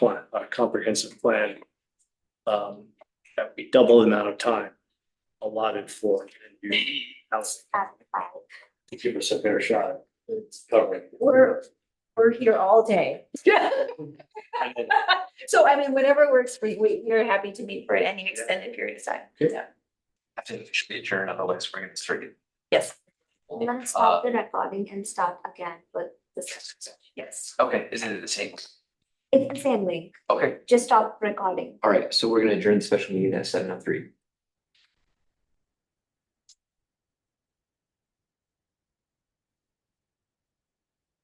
comprehensive plan. Um, that would be double the amount of time allotted for community housing. To give us a fair shot at covering. We're, we're here all day. And then So I mean, whatever works for you, we, we're happy to meet for any extended period of time. Okay. Yeah. I think we should be adjourned, otherwise we're gonna start. Yes, I'm gonna stop the recording and start again with the session. yes. Okay, is it the same? It's the same link, Okay, just stop recording. all right, so we're gonna adjourn the special meeting at seven oh three.